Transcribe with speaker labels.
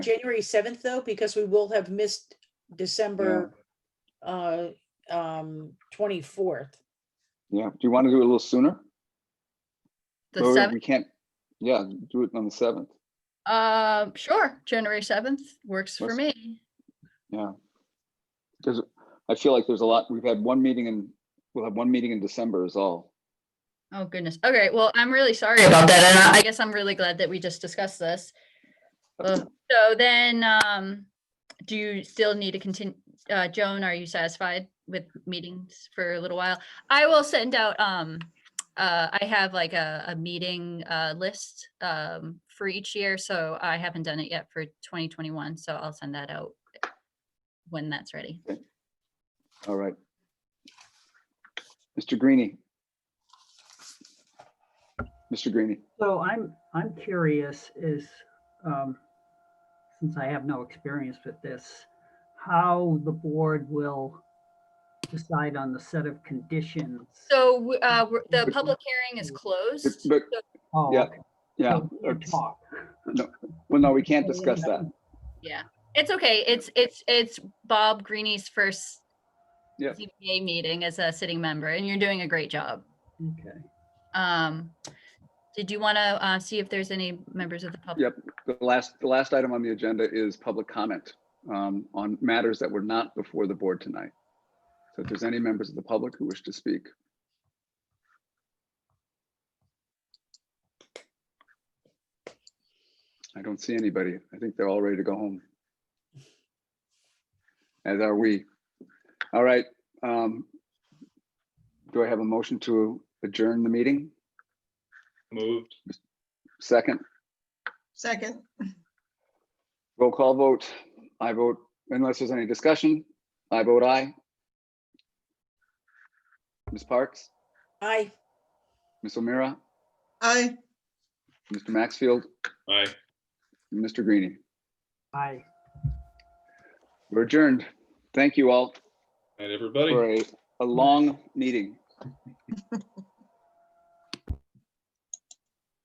Speaker 1: January seventh though, because we will have missed December uh, um, twenty-fourth.
Speaker 2: Yeah, do you want to do it a little sooner?
Speaker 3: The
Speaker 2: Or
Speaker 3: seventh,
Speaker 2: We can't, yeah, do it on the seventh.
Speaker 3: uh, sure, January seventh works for
Speaker 2: Let's-
Speaker 3: me.
Speaker 2: Yeah. Because I feel like there's a lot, we've had one meeting in, we'll have one meeting in December is all.
Speaker 3: Oh goodness. Okay, well, I'm really sorry about that. And I- I guess I'm really glad that we just discussed this. Ugh, So then, um, do you still need to continue? Uh, Joan, are you satisfied with meetings for a little while? I will send out, um, uh, I have like a, a meeting, uh, list, um, for each year. So I haven't done it yet for twenty twenty-one, so I'll send that out when that's ready.
Speaker 2: All right. Mr. Greenie. Mr. Greenie,
Speaker 4: So I'm, I'm curious is, um, since I have no experience with this, how the board will decide on the set of conditions?
Speaker 3: So, w- uh, we're- the
Speaker 2: But-
Speaker 3: public hearing is closed.
Speaker 2: but,
Speaker 4: Oh,
Speaker 2: yeah,
Speaker 4: okay,
Speaker 2: yeah,
Speaker 4: so we can
Speaker 2: it's-
Speaker 4: Talk.
Speaker 2: well, no, we can't discuss that.
Speaker 3: It's okay. It's, it's, it's Bob Greeny's first
Speaker 2: Yeah.
Speaker 3: ZBA meeting as a sitting member and you're doing a great job.
Speaker 4: Okay.
Speaker 3: Um, did you want to, uh, see if there's any members of the public?
Speaker 2: Yep. The last, the last item on the agenda is public comment um, on matters that were not before the board tonight. So if there's any members of the public who wish to speak. I don't see anybody. I think they're all ready to go home. As are we. All right. um, Do I have a motion to adjourn the meeting?
Speaker 5: Moved.
Speaker 2: Second?
Speaker 6: Second,
Speaker 2: Roll call vote. I vote, unless there's any discussion, I vote aye. Ms. Parks,
Speaker 1: I,
Speaker 2: Ms. O'Meara,
Speaker 6: aye.
Speaker 2: Mr. Maxfield,
Speaker 5: Aye.
Speaker 2: and Mr. Greenie.
Speaker 4: Aye.
Speaker 2: We're adjourned. Thank you all
Speaker 5: And everybody.
Speaker 2: for a, a long meeting.